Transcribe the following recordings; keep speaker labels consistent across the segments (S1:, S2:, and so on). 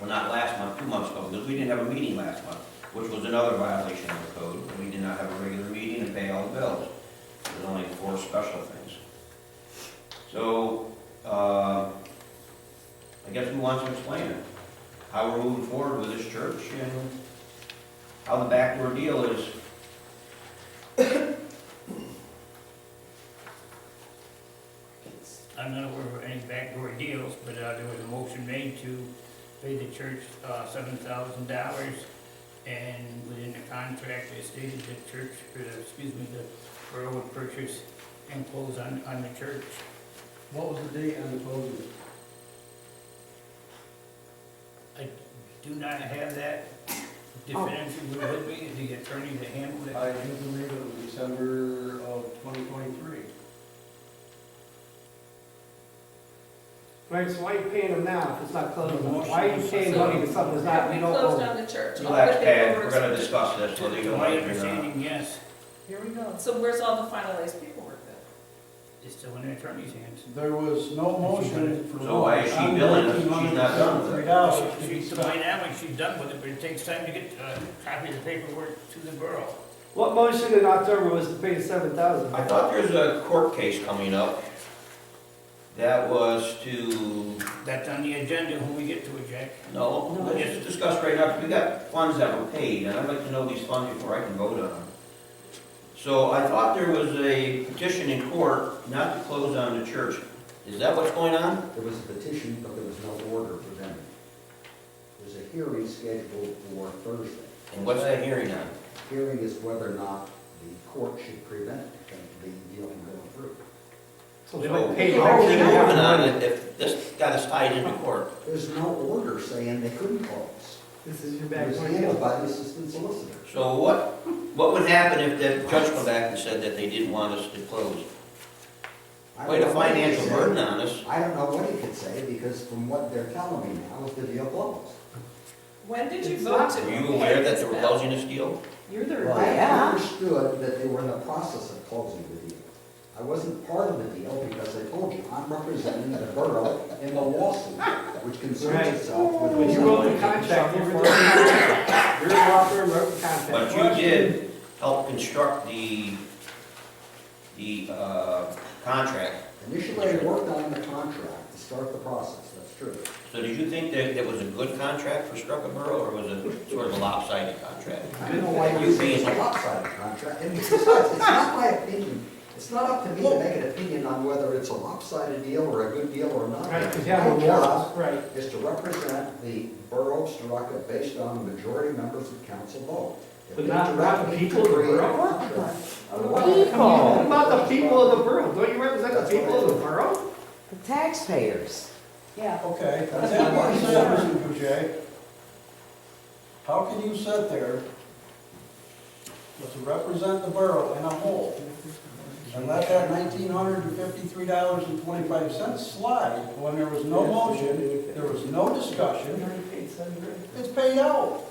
S1: well, not last month, two months ago, because we didn't have a meeting last month, which was another violation of the code. We did not have a regular meeting and pay all the bills. There's only four special things. So, uh, I guess who wants to explain it? How we're moving forward with this church and how the backdoor deal is.
S2: I'm not aware of any backdoor deals, but uh, there was a motion made to pay the church uh, seven thousand dollars. And within the contract, it stated the church, or the- excuse me, the borough would purchase and close on, on the church.
S3: What was the date on the closing?
S2: I do not have that definitively with me, the attorney to handle it.
S3: I do believe it was December of 2023.
S4: Right, so why are you paying them now if it's not closing?
S2: Motion.
S4: Why are you paying money to something that's not, we don't
S5: Closed
S4: own?
S5: on the church. I'll
S1: Relax,
S5: put
S1: Pat,
S5: that over
S1: we're gonna
S5: to-
S1: discuss this, whether you
S2: To
S1: like
S2: my
S1: it or not.
S2: understanding, yes,
S4: Here we go.
S5: So where's all the finalized paperwork then?
S2: it's still in the attorney's hands.
S3: There was no motion for.
S1: So why is she billing us? She's not done with it.
S3: Three dollars to be
S2: She's,
S3: spent.
S2: by now, when she's done with it, but it takes time to get uh, a copy of the paperwork to the borough.
S4: What motion in October was to pay the seven thousand?
S1: I thought there's a court case coming up that was to,
S2: That's on the agenda when we get to it, Jack.
S1: no, let's just discuss right now, 'cause we got funds that were paid, and I'd like to know these funds before I can vote on them. So I thought there was a petition in court not to close on the church. Is that what's going on?
S6: There was a petition, but there was no order presented. There's a hearing scheduled for Thursday.
S1: And what's that hearing on?
S6: Hearing is whether or not the court should prevent the deal from going through.
S4: So
S1: So
S4: they would pay
S1: How are we
S4: everything out.
S1: moving on it if this got us tied into court?
S6: There's no order saying they couldn't close.
S4: This is your
S6: It
S4: back
S6: was handled by the assistant solicitor.
S1: So what, what would happen if the judge come back and said that they didn't want us to close?
S6: I don't
S1: Wait, a
S6: know what he
S1: financial
S6: said.
S1: burden on us.
S6: I don't know what he could say, because from what they're telling me now, the deal closed.
S5: When did you
S4: It's
S5: vote
S4: not-
S5: to?
S1: Were you aware that they were closing this deal?
S4: You're their
S6: Well, I
S4: dad.
S6: understood that they were in the process of closing the deal. I wasn't part of the deal because I told you, I'm representing the borough in the lawsuit, which concerns
S4: Right.
S6: itself
S4: When
S6: with.
S4: you wrote the contract, you were their contract. Your law firm wrote the contract.
S1: But you did help construct the, the, uh, contract.
S6: Initially, I worked on the contract to start the process, that's true.
S1: So did you think that it was a good contract for Struckenborough, or was it sort of a lopsided contract?
S6: I don't know why you say it's a lopsided contract, and besides, it's not my opinion. It's not up to me to make an opinion on whether it's a lopsided deal or a good deal or not.
S4: Right, because you have
S6: My
S4: a
S6: job
S4: law, right.
S6: is to represent the borough of Soraka based on the majority members of council vote. If
S4: But
S6: they
S4: not-
S6: direct
S4: not the
S6: me to
S4: people of the
S6: create a
S4: borough?
S6: contract, I
S4: People,
S6: will
S4: what
S6: come in and-
S4: about the people of the borough? Don't you represent the
S6: Oh. That's what
S4: people of
S6: I
S4: the
S6: do.
S4: borough?
S7: The taxpayers.
S6: Yeah.
S3: Okay,
S6: That's
S3: that's
S6: not
S3: what
S6: my
S3: you
S6: job.
S3: said, Mr. Boucher. How can you sit there, but to represent the borough in a whole, and let that nineteen hundred and fifty-three dollars and twenty-five cents slide when there was no motion, there was no discussion, it's paid out?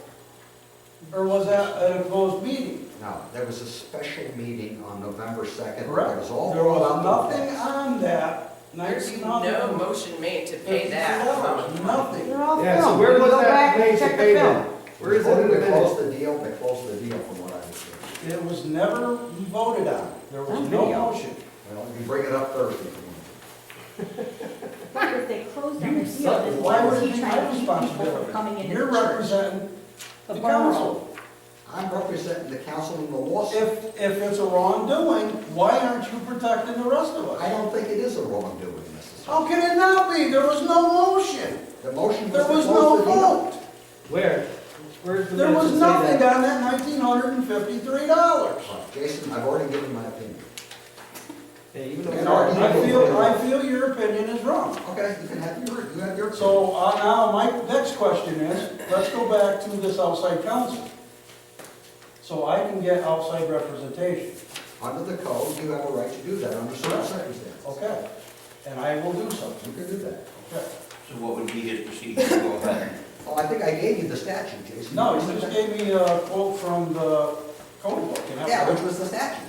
S3: Or was that an opposed meeting?
S6: No, there was a special meeting on November second. It
S3: Correct.
S6: was all.
S3: There was
S6: brought up.
S3: nothing on that
S5: Oh. There's
S3: nineteen hundred.
S5: no motion made to pay that amount.
S3: Nothing.
S7: They're
S8: Oh,
S7: all
S4: Yeah, so
S7: filmed.
S4: where
S7: You
S4: was
S7: go
S4: that
S7: back and
S4: place to
S7: check the
S4: pay them?
S7: film.
S4: Where is it in the
S6: They
S4: minutes?
S6: closed the deal, they closed the deal from what I understand.
S3: It was never voted on. There was
S7: On
S3: no
S7: video.
S3: motion.
S6: Well, you bring it up Thursday. if you want to.
S8: But if they closed on the deal,
S3: So
S8: then
S3: Why
S8: why
S3: were
S8: was
S3: you
S8: he trying to
S3: trying
S8: keep people from coming
S3: responsibility?
S8: into
S3: You're
S8: the church?
S3: representing
S8: The
S3: the
S8: borough.
S3: council.
S6: I'm representing the council in the lawsuit.
S3: If, if it's a wrongdoing, why aren't you protecting the rest of
S6: I
S3: us?
S6: don't think it is a wrongdoing necessarily.
S3: How can it not be? There was no motion.
S6: The motion was
S3: There
S6: to
S3: was
S6: close
S3: no
S6: the deal.
S3: vote.
S4: Where? Where's the
S3: There
S4: minutes
S3: was
S4: that say
S3: nothing
S4: that?
S3: on that nineteen hundred and fifty-three dollars.
S6: Right, Jason, I've already given my opinion.
S4: Yeah, even though-
S6: And our-
S3: I feel, I feel your opinion is wrong.
S6: Okay, you can have your, you have your.
S3: So uh, now, my next question is, let's go back to this outside counsel. So I can get outside representation,
S6: Under the code, you have a right to do that under certain circumstances.
S3: okay? And I will do so,
S6: You can do that.
S3: okay?
S1: So what would be his procedure to go ahead?
S6: Oh, I think I gave you the statute, Jason.
S3: No, you just gave me a quote from the code book. and that's-
S6: Yeah, which was the statute.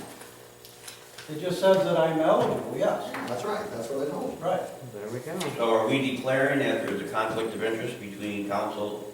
S3: It just says that I'm eligible, yes,
S6: That's right, that's what I told you.
S3: right.
S7: There we go.
S1: So are we declaring that there's a conflict of interest between council